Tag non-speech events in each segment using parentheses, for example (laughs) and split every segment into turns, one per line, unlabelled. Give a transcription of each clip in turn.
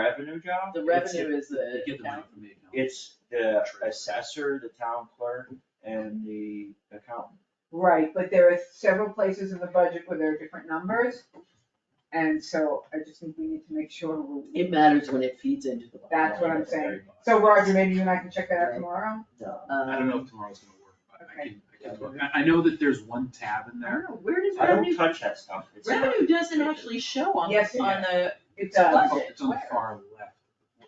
revenue job?
The
It's-
revenue is uh, the
You get the money
account.
from the account.
It's the assessor, the town clerk, and the accountant.
Right, but there are several places in the budget where there are different numbers. And so I just think we need to make sure, we-
It matters when it feeds into the. bottom
that's what I'm
line.
saying. So Roger, maybe you and I can check that out
Right.
tomorrow?
No.
I don't know
Um,
if tomorrow's gonna work, but I
Okay.
can, I can, look. I, I know that there's one tab in
I don't
there.
know, where does
I don't
revenue,
touch that stuff. It's not-
revenue doesn't actually show on,
Yes,
the-
it
on the,
It does.
Oh, It's on the
Where?
far left.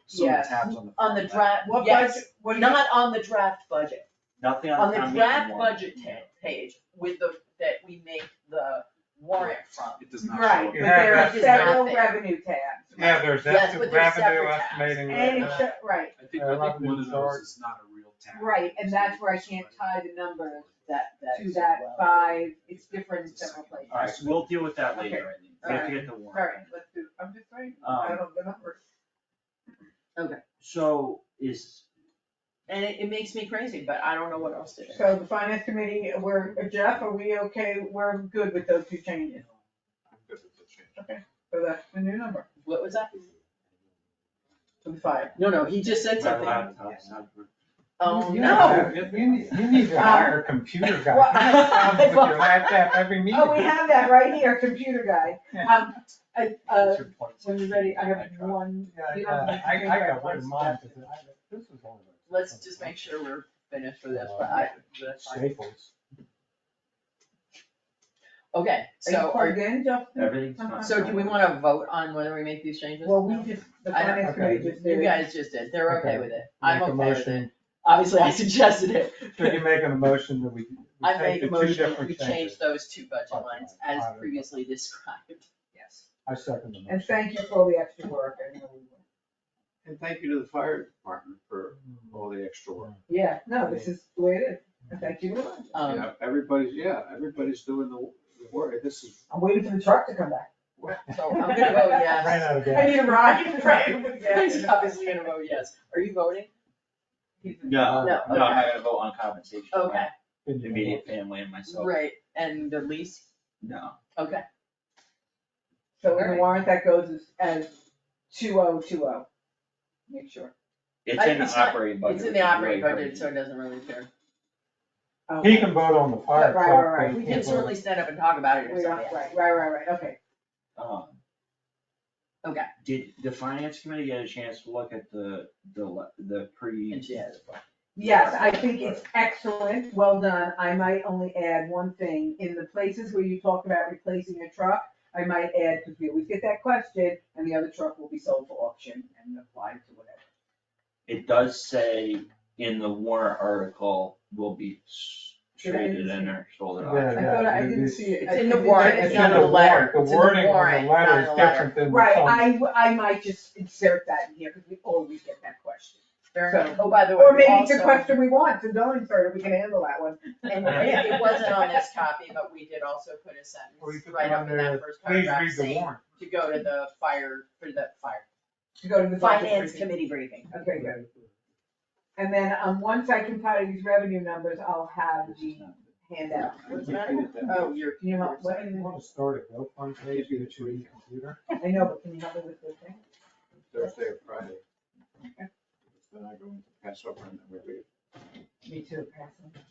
Some of
Yes,
the tabs on the.
on
far
the
left.
draft,
What
yes,
budget, what do you?
not on the draft budget.
Nothing on
On
the
the
town meeting
draft
warrant.
budget ta- page with the, that we make the warrant from.
It does not show.
Right,
up.
but there
Yeah,
are
that's-
several
It's not there.
revenue tabs.
Yeah,
Yes,
there's that's
but they're
revenue
separate tabs.
estimating.
And,
right
it's
now.
ju- right,
I think,
Yeah,
I think
revenue
one of those
chart.
is not a real tab.
right, and that's where I can't tie the numbers
That, that.
to that five, it's different in
It's a
several places.
Alright, so we'll deal with that later, I think. We have to
Okay.
get the
All right,
warrant.
let's do, I'm just saying,
Um,
I don't know the numbers.
So is,
And it, it makes me crazy, but I don't know what else to do.
So the finance committee, we're, Jeff, are we okay, we're good with those two changes,
I'm good with the change.
so that's the new number,
What was that?
for the five.
No, no, he just said
my
something.
laptop's not.
Oh,
uh, You
no.
need to- You need, you need to hire a computer
(laughs)
guy.
Well,
You have problems with your
I-
laptop every meeting.
Oh, we have that right here, computer guy. Um, I, uh,
That's your point.
when you're ready, I have
tried.
one,
Yeah,
you don't
yeah,
need to
uh, I,
think
I
about
got
one
one in mind,
step.
because I, this is one of those.
Let's just make sure we're finished with this, but I, that's fine.
Staples.
Okay,
are you
so
plugged
are,
in, Justin?
Everything's fine.
Uh-huh. so do we wanna vote on whether we make these changes?
Well, we just, the
I don't-
finance committee just did
You
it.
guys just did, they're okay
Okay.
with it, I'm
Make a
okay with
motion.
it, obviously I (laughs) suggested it.
So you make a motion that we, we
(laughs) I make a
take the two
motion,
different
we
changes. Oh,
change those two budget
Okay.
lines as
Alright.
previously described.
Yes.
I second the motion.
And thank you for all the extra work, I know we will.
And thank you to the fire department for all the extra work.
Yeah, no, this is the way it is, and thank you very much.
Um,
Yeah, Everybody's, yeah, everybody's doing the the work. This is,
I'm waiting for the truck to come back.
so I'm gonna
(laughs)
vote
Ran
yes.
out of
I
gas.
need a ride, (laughs) right?
He's obviously gonna vote yes, are you voting?
No,
No,
no, I gotta vote on compensation. for
Okay,
my Immediate family and myself.
right, and the lease,
No,
okay,
So in the
Alright.
warrant that goes as, as two oh two oh. Make sure.
it's
I-
in
it's
the
not-
operating budget.
it's in
which is
the operating
way
budget,
crazy.
so it doesn't really care.
Oh, Okay.
He can vote on the
Right,
fire
right,
truck,
right.
but he
We can
can't vote on-
certainly stand up and talk about it if
We are-
somebody
Right,
asks.
right, right, right, okay.
Um,
Okay.
Did the finance committee get a chance to look at the, the, le- the pre?
And she has.
Yes, I think it's excellent, well done. I might only add one thing. In the places where you talk about replacing a truck, I might add, because we always get that question, and the other truck will be sold for auction and applied to whatever.
It does say in the warrant article will be s-
Did I
traded
see?
in or sold at
Yeah,
auction.
I thought I
it
didn't
is-
see it.
It's
I
in the
didn't-
warrant,
It's
it's
in
not
the
on the letter.
warrant, the
It's in the
wording
warrant,
on the
not
letter
on
is
the letter.
different than the.
Right,
summary.
I, w- I might just insert that in here, because we always get that question.
Fair
So-
enough. Oh, by the way,
Or maybe it's a
also-
question we want, so don't insert it, we can handle that one.
And it it wasn't on this copy, but we did also put a
Or you
sentence
put
right
it
up
on
in
there,
that first
please
paragraph
read the
saying
warrant.
to go to the fire, for the fire,
To go to the.
finance committee briefing.
Okay, good. And then, um, once I compile these revenue numbers, I'll have the handout.
What's the matter?
Oh, you're,
Can you help, what,
You wanna start a GoFundMe page that you use computer?
I know, but can you help me with this thing?
Thursday or Friday. Then I go into Passover and then we leave.
Me too.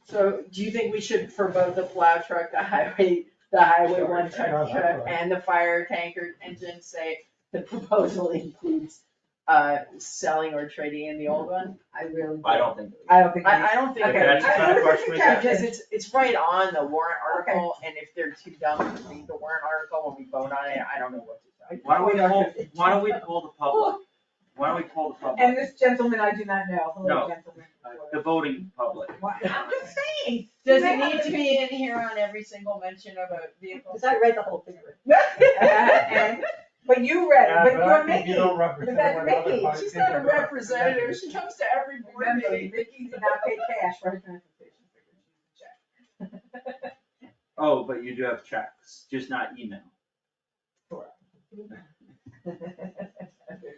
so do you think we should, for both the plow truck, the highway, the highway one ton truck and the fire tanker engine, say the proposal includes uh, selling or trading in the old one?
I really.
I don't think.
I don't think.
I, I don't think.
Okay.
That's the kind of
I-
question we get.
Because it's, it's right on the warrant article, and if they're too dumb to read the warrant article when we vote on it, I don't know what to do.
Why don't we poll, why don't we poll the public? Why don't we poll the
(laughs) And
public,
this gentleman, I do not know, hello
No.
gentleman.
uh,
the voting
(laughs)
public?
Why- I'm just saying.
Does it need to
(laughs)
be in here on every single mention of a vehicle?
I read the whole thing.
And- But you read it,
Yeah,
but
I
you're
think
Mickey.
You don't represent
that's
what other
Mickey.
five
She's not a
people-
representative, she comes to every board
Remember,
meeting.
Mickey did not pay cash for her transportation.
Oh, but you do have checks, just not email.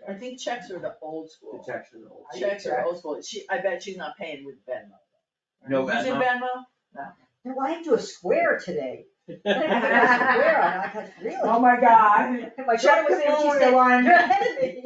I think checks are the old school.
It's actually the old.
Checks are old school, she, I bet she's not paying with Venmo.
No
Using
Venmo?
Venmo?
Well, I had to do a square today.
(laughs)
(laughs)
I had to do a square, and I was like, really?
Oh, my God.
My daughter was in, she
Check the
said,
(laughs)
line.
you're ahead of me.